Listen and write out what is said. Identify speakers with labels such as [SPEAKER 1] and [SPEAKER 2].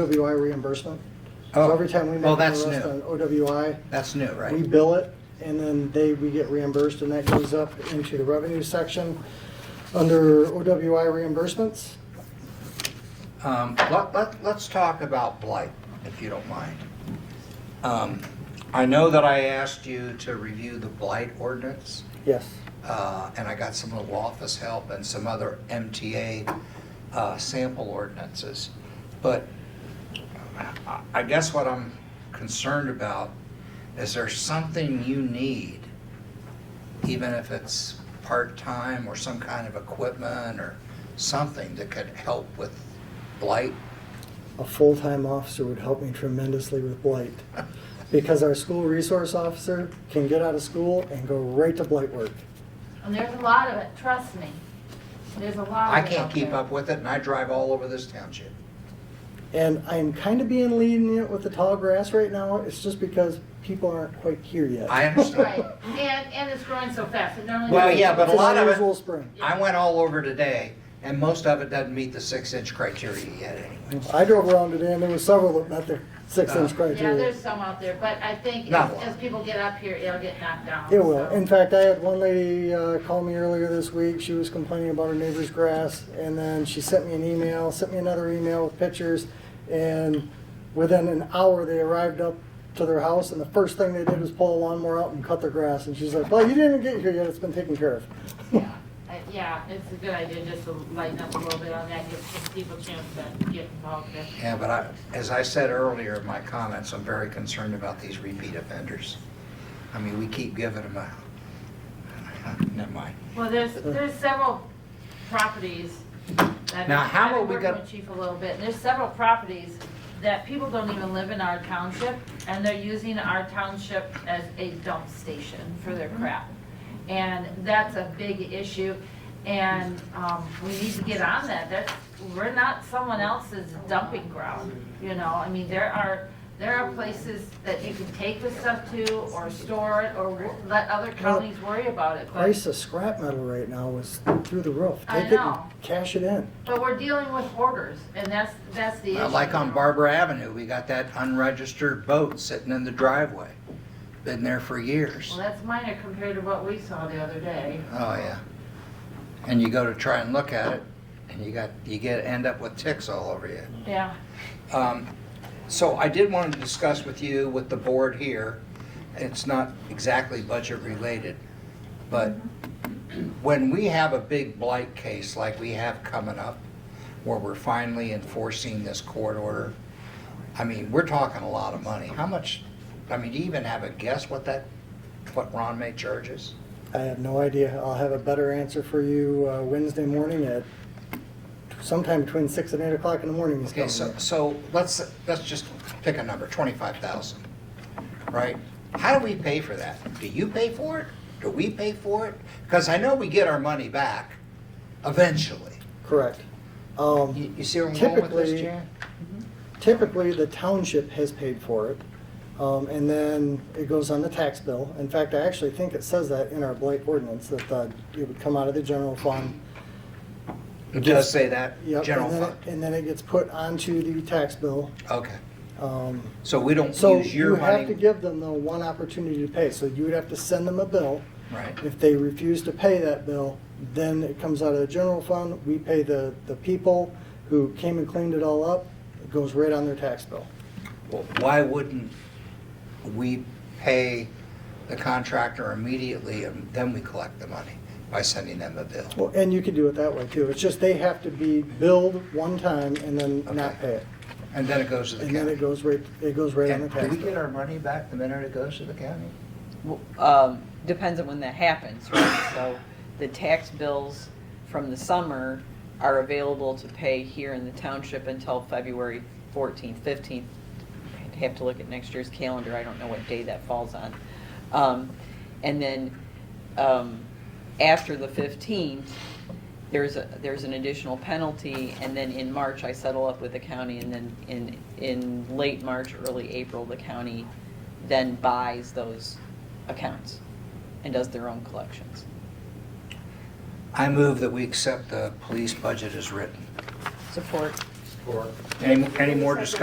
[SPEAKER 1] OWI reimbursement. So
[SPEAKER 2] Oh,
[SPEAKER 1] every time we
[SPEAKER 2] well,
[SPEAKER 1] make an
[SPEAKER 2] that's
[SPEAKER 1] arrest on
[SPEAKER 2] new.
[SPEAKER 1] OWI,
[SPEAKER 2] That's new,
[SPEAKER 1] we
[SPEAKER 2] right?
[SPEAKER 1] bill it, and then they, we get reimbursed, and that goes up into the revenue section under OWI reimbursements.
[SPEAKER 2] Um, let, let, let's talk about blight, if you don't mind. Um, I know that I asked you to review the blight ordinance,
[SPEAKER 1] Yes.
[SPEAKER 2] uh, and I got some little office help and some other MTA, uh, sample ordinances. But I- I guess what I'm concerned about is there something you need, even if it's part-time or some kind of equipment or something that could help with blight?
[SPEAKER 1] A full-time officer would help me tremendously with blight, because our school resource officer can get out of school and go right to blight work.
[SPEAKER 3] And there's a lot of it, trust me. There's a lot
[SPEAKER 2] I
[SPEAKER 3] of it
[SPEAKER 2] can't
[SPEAKER 3] out
[SPEAKER 2] keep
[SPEAKER 3] there.
[SPEAKER 2] up with it, and I drive all over this township.
[SPEAKER 1] And I'm kind of being lenient with the tall grass right now, it's just because people aren't quite here yet.
[SPEAKER 2] I understand.
[SPEAKER 3] Right, and, and it's growing so fast, it normally.
[SPEAKER 2] Well, yeah, but a
[SPEAKER 1] It's an
[SPEAKER 2] lot of it-
[SPEAKER 1] unusual spring.
[SPEAKER 2] I went all over today, and most of it doesn't meet the six-inch criteria yet anyway.
[SPEAKER 1] I drove around today and there were several that met the six inch
[SPEAKER 3] Yeah,
[SPEAKER 1] criteria.
[SPEAKER 3] there's some out there, but I think
[SPEAKER 2] Not
[SPEAKER 3] as,
[SPEAKER 2] a lot.
[SPEAKER 3] as people get up here, it'll get knocked down.
[SPEAKER 1] It will.
[SPEAKER 3] so.
[SPEAKER 1] In fact, I had one lady uh, call me earlier this week. She was complaining about her neighbor's grass and then she sent me an email, sent me another email with pictures. And within an hour, they arrived up to their house and the first thing they did was pull a lawnmower out and cut their grass. And she's like, well, you didn't get here yet. It's been taken care of.
[SPEAKER 3] Yeah, I- Uh, Yeah, it's a good idea just to lighten up a little bit on that, gives people a chance to get involved in.
[SPEAKER 2] Yeah, but I, as I said earlier in my comments, I'm very concerned about these repeat offenders. I mean, we keep giving them a, never mind.
[SPEAKER 3] Well, there's,
[SPEAKER 2] Uh.
[SPEAKER 3] there's several properties that.
[SPEAKER 2] Now, how
[SPEAKER 3] I've
[SPEAKER 2] are
[SPEAKER 3] been
[SPEAKER 2] we
[SPEAKER 3] working
[SPEAKER 2] gonna-
[SPEAKER 3] with Chief a little bit, and there's several properties that people don't even live in our township, and they're using our township as a dump station for their
[SPEAKER 2] Mm-hmm.
[SPEAKER 3] crap. And that's a big issue, and, um, we need to get on that, that's, we're not someone else's dumping ground, you know, I mean, there are, there are places that you can take this stuff to, or store it, or w- let other counties worry about it, but.
[SPEAKER 1] Price of scrap metal right now is through the roof.
[SPEAKER 3] I
[SPEAKER 1] Take it and
[SPEAKER 3] know.
[SPEAKER 1] cash it in.
[SPEAKER 3] But we're dealing with orders, and that's, that's the issue.
[SPEAKER 2] Uh, Like on Barbara Avenue, we got that unregistered boat sitting in the driveway. Been there for years.
[SPEAKER 3] Well, that's minor compared to what we saw the other day.
[SPEAKER 2] Oh, yeah. And you go to try and look at it, and you got, you get, end up with ticks all over you.
[SPEAKER 3] Yeah,
[SPEAKER 2] Um, So I did want to discuss with you, with the board here, it's not exactly budget-related, but when we have a big blight case like we have coming up, where we're finally enforcing this court order, I mean, we're talking a lot of money. How much, I mean, do you even have a guess what that, what Ron May charges?
[SPEAKER 1] I have no idea. I'll have a better answer for you uh, Wednesday morning at sometime between six and eight o'clock in the morning. is
[SPEAKER 2] Okay, so,
[SPEAKER 1] coming.
[SPEAKER 2] so let's, let's just pick a number, 25,000, right? How do we pay for that? Do you pay for it? Do we pay for it? Because I know we get our money back eventually.
[SPEAKER 1] Correct. Um,
[SPEAKER 2] You you see where I'm going with this,
[SPEAKER 1] Typically-
[SPEAKER 2] Jan?
[SPEAKER 1] Typically, the township has paid for it, um, and then it goes on the tax bill. In fact, I actually think it says that in our blight ordinance, that uh, it would come out of the general fund.
[SPEAKER 2] It does say that,
[SPEAKER 1] Yep,
[SPEAKER 2] general
[SPEAKER 1] and then it-
[SPEAKER 2] fund.
[SPEAKER 1] And then it gets put onto the tax bill.
[SPEAKER 2] Okay,
[SPEAKER 1] Um,
[SPEAKER 2] so we don't
[SPEAKER 1] So
[SPEAKER 2] use
[SPEAKER 1] you
[SPEAKER 2] your
[SPEAKER 1] have to
[SPEAKER 2] money,
[SPEAKER 1] give them, though, one opportunity to pay. So you would have to send them a bill.
[SPEAKER 2] right?
[SPEAKER 1] If they refuse to pay that bill, then it comes out of the general fund, we pay the, the people who came and cleaned it all up, it goes right on their tax bill.
[SPEAKER 2] Well, Why wouldn't we pay the contractor immediately and then we collect the money by sending them a bill?
[SPEAKER 1] Well, and you could do it that way too, it's just they have to be billed one time and then not pay it.
[SPEAKER 2] And then it goes to the
[SPEAKER 1] And then
[SPEAKER 2] county?
[SPEAKER 1] it goes right, it goes right on the
[SPEAKER 2] And do
[SPEAKER 1] tax
[SPEAKER 2] we get
[SPEAKER 1] bill.
[SPEAKER 2] our money back the minute it goes to the county?
[SPEAKER 4] Well, um, depends on when that happens, right? So the tax bills from the summer are available to pay here in the township until February 14th, 15th. I'd have to look at next year's calendar, I don't know what day that falls on. Um, And then um, after the 15th, there's, a there's an additional penalty, and then in March, I settle up with the county, and then in, in late March, early April, the county then buys those accounts and does their own collections.
[SPEAKER 2] I move that we accept the police budget as written.
[SPEAKER 4] Support.
[SPEAKER 2] Any, any more discussion?